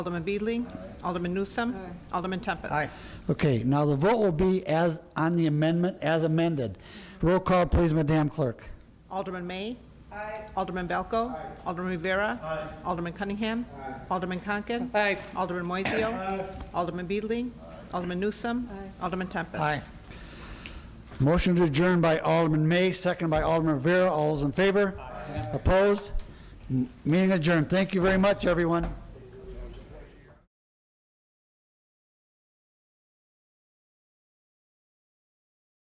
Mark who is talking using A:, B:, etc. A: Alderman Beedling. Alderman Newsom. Alderman Tempest.
B: Aye.
C: Okay, now the vote will be as, on the amendment as amended. Roll call, please, Madam Clerk.
A: Alderman May. Alderman Valco. Alderman Rivera. Alderman Cunningham. Alderman Conken. Alderman Moiseo. Alderman Beedling. Alderman Newsom. Alderman Tempest.
B: Aye.
C: Motion to adjourn by Alderman May, second by Alderman Rivera. All those in favor? Opposed? M- Meeting adjourned. Thank you very much, everyone.